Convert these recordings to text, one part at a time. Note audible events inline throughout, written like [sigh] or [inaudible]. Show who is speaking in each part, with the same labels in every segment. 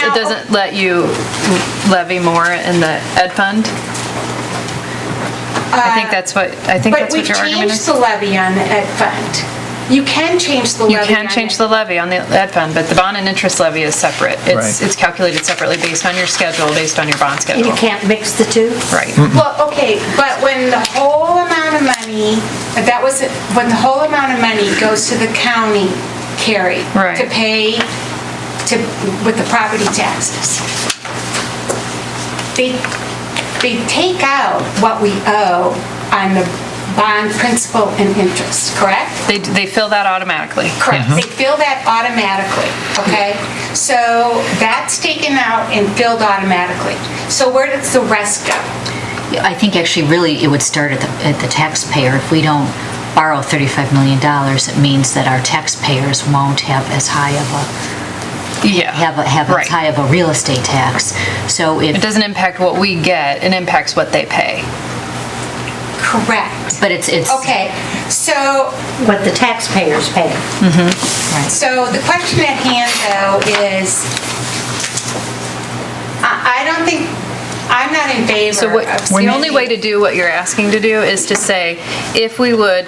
Speaker 1: doesn't let you levy more in the ed fund? I think that's what, I think
Speaker 2: But
Speaker 1: that's
Speaker 2: we've
Speaker 1: what your argument
Speaker 2: changed
Speaker 1: is.
Speaker 2: the levy on the ed fund. You can change the levy
Speaker 1: You
Speaker 2: on
Speaker 1: can change
Speaker 2: it.
Speaker 1: the levy on the ed fund, but the bond and interest levy is separate. It's,
Speaker 3: Right.
Speaker 1: it's calculated separately based on your schedule, based on your bond
Speaker 4: And
Speaker 1: schedule.
Speaker 4: you can't mix the two?
Speaker 1: Right.
Speaker 2: Well, okay, but when the whole amount of money, that was, when the whole amount of money goes to the county, Carrie.
Speaker 1: Right.
Speaker 2: To pay, to, with the property taxes. They, they take out what we owe on the bond principal and interest, correct?
Speaker 1: They, they fill that automatically.
Speaker 2: Correct. They fill that automatically, okay? So that's taken out and filled automatically. So where does the rest go?
Speaker 4: I think actually really it would start at the, at the taxpayer. If we don't borrow $35 million, it means that our taxpayers won't have as high of a,
Speaker 1: Yeah.
Speaker 4: have, a- have
Speaker 1: Right.
Speaker 4: as high of a real estate tax. So
Speaker 1: It
Speaker 4: if,
Speaker 1: doesn't impact what we get, it impacts what they pay.
Speaker 2: Correct.
Speaker 4: but it's, it's.
Speaker 2: Okay, so,
Speaker 5: What the taxpayers pay.
Speaker 4: Right.
Speaker 2: so the question at hand, though, is, I I don't think, I'm not in
Speaker 1: So
Speaker 2: favor
Speaker 1: what,
Speaker 2: of...
Speaker 1: the only way to do what you're asking to do is to say, if we would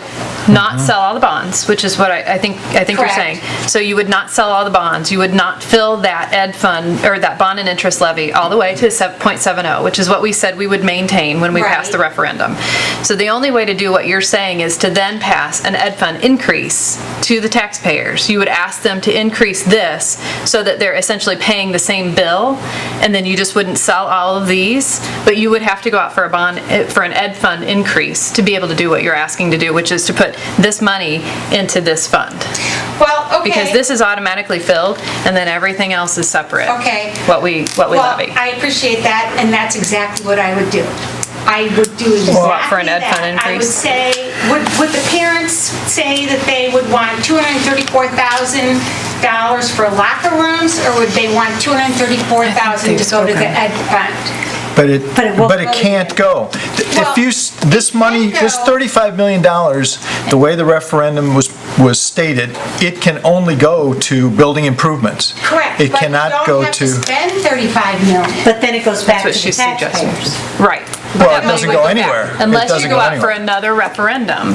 Speaker 1: not sell all the bonds, which is what I, I think, I think you're saying.
Speaker 2: Correct.
Speaker 1: So you would not sell all the bonds, you would not fill that ed fund, or that bond and interest levy all the way to 7.70, oh, which is what we said we would maintain when we passed the
Speaker 2: Right.
Speaker 1: referendum. So the only way to do what you're saying is to then pass an ed fund increase to the taxpayers. You would ask them to increase this so that they're essentially paying the same bill, and then you just wouldn't sell all of these, but you would have to go out for a bond, eh, for an ed fund increase to be able to do what you're asking to do, which is to put this money into this fund.
Speaker 2: Well, okay.
Speaker 1: Because this is automatically filled, and then everything else is separate.
Speaker 2: Okay.
Speaker 1: What we, what we levy.
Speaker 2: Well, I appreciate that, and that's exactly what I would do. I would do exactly
Speaker 1: What, for an ed
Speaker 2: that.
Speaker 1: fund
Speaker 2: I would
Speaker 1: increase?
Speaker 2: say, would, would the parents say that they would want $234,000 for locker rooms, or would they want $234,000 to
Speaker 1: they've
Speaker 2: go to the
Speaker 1: spoken.
Speaker 2: ed fund?
Speaker 3: But it,
Speaker 5: But it won't
Speaker 3: but it
Speaker 5: go
Speaker 3: can't go.
Speaker 2: Well,
Speaker 3: If you, s- this money, this
Speaker 2: can't go.
Speaker 3: $35 million, the way the referendum was, was stated, it can only go to building improvements.
Speaker 2: Correct.
Speaker 3: It cannot go
Speaker 2: But you
Speaker 3: to,
Speaker 2: don't have to spend $35 million.
Speaker 5: But then it goes back
Speaker 1: That's
Speaker 5: to the
Speaker 1: what she's suggesting.
Speaker 5: taxpayers.
Speaker 1: Right.
Speaker 3: well, it doesn't go anywhere. It
Speaker 1: Unless you
Speaker 3: doesn't
Speaker 1: go out for
Speaker 3: anywhere.
Speaker 1: another referendum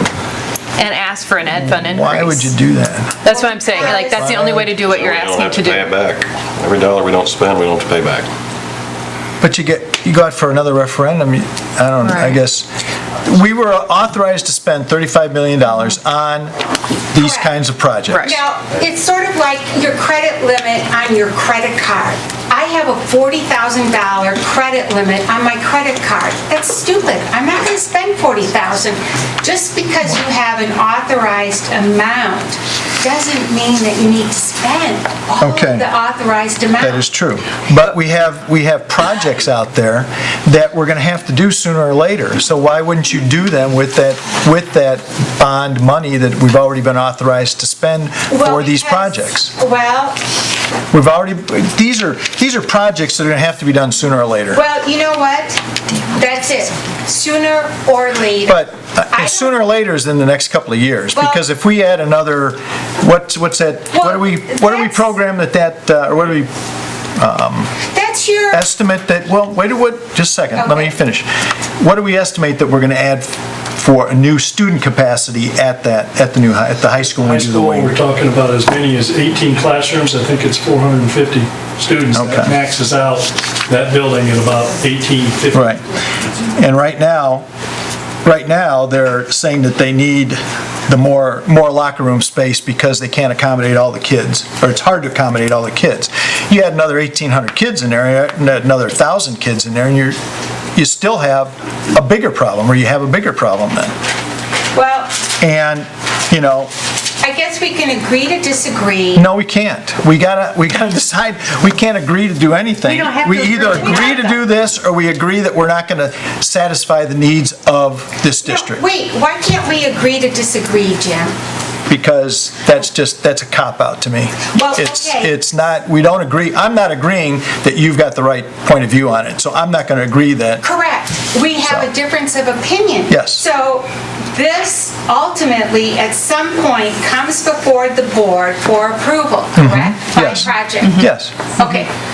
Speaker 1: and ask for an ed fund increase.
Speaker 3: Why would you do that?
Speaker 1: That's what I'm saying, like, that's the only way to do what you're asking to
Speaker 6: We don't have
Speaker 1: do.
Speaker 6: to pay it back. Every dollar we don't spend, we don't have to pay back.
Speaker 3: But you get, you go out for another referendum, you- I don't, I
Speaker 1: Right.
Speaker 3: guess. We were authorized to spend $35 million on these
Speaker 2: Correct.
Speaker 3: kinds of projects.
Speaker 1: Right.
Speaker 2: Now, it's sort of like your credit limit on your credit card. I have a $40,000 credit limit on my credit card. That's stupid. I'm not going to spend $40,000. Just because you have an authorized amount doesn't mean that you need to spend all of
Speaker 3: Okay.
Speaker 2: the authorized amount.
Speaker 3: That is true. But we have, we have projects out there that we're going to have to do sooner or later. So why wouldn't you do them with that, with that bond money that we've already been authorized to spend
Speaker 2: Well,
Speaker 3: for these
Speaker 2: because-
Speaker 3: projects?
Speaker 2: Well,
Speaker 3: We've already, these are, these are projects that are going to have to be done sooner or later.
Speaker 2: well, you know what? That's it. Sooner or later.
Speaker 3: But
Speaker 2: I
Speaker 3: uh,
Speaker 2: don't-
Speaker 3: sooner or later is in the next couple of years,
Speaker 2: Well-
Speaker 3: because if we add another, what's, what's that, what do we, what do we
Speaker 2: Well,
Speaker 3: program that that, uh, or what do we
Speaker 2: That's your...
Speaker 3: estimate that, well, wait a what, just a second, let me
Speaker 2: Okay.
Speaker 3: finish. What do we estimate that we're going to add for a new student capacity at that, at the new, hi- at the high school when
Speaker 7: High
Speaker 3: we do the
Speaker 7: school, we're
Speaker 3: wing?
Speaker 7: talking about as many as 18 classrooms, I think it's 450 students.
Speaker 3: Okay.
Speaker 7: That maxes out that building at about 1850.
Speaker 3: Right. And right now, right now, they're saying that they need the more, more locker room space because they can't accommodate all the kids, or it's hard to accommodate all the kids. You add another 1,800 kids in there, and another 1,000 kids in there, and you're, you still have a bigger problem, or you have a bigger problem then.
Speaker 2: Well,
Speaker 3: And, you know,
Speaker 2: I guess we can agree to disagree.
Speaker 3: No, we can't. We gotta, we gotta [laughs] decide, we can't agree to do anything.
Speaker 5: We don't have to
Speaker 3: either
Speaker 5: agree.
Speaker 3: agree to do this, or we agree that we're not gonna satisfy the needs of this
Speaker 2: No,
Speaker 3: district.
Speaker 2: Wait, why can't we agree to disagree, Jim?
Speaker 3: Because that's just, that's a cop-out to me.
Speaker 2: Well,
Speaker 3: It's,
Speaker 2: okay.
Speaker 3: it's not, we don't agree, I'm not agreeing that you've got the right point of view on it, so I'm not gonna agree that,
Speaker 2: Correct. We have a
Speaker 3: So-
Speaker 2: difference of opinion.
Speaker 3: Yes.
Speaker 2: So this ultimately, at some point, comes before the board for approval, correct?
Speaker 3: Mm-hmm. Yes. Mm-hmm.
Speaker 2: By project?
Speaker 3: yes.
Speaker 2: Okay.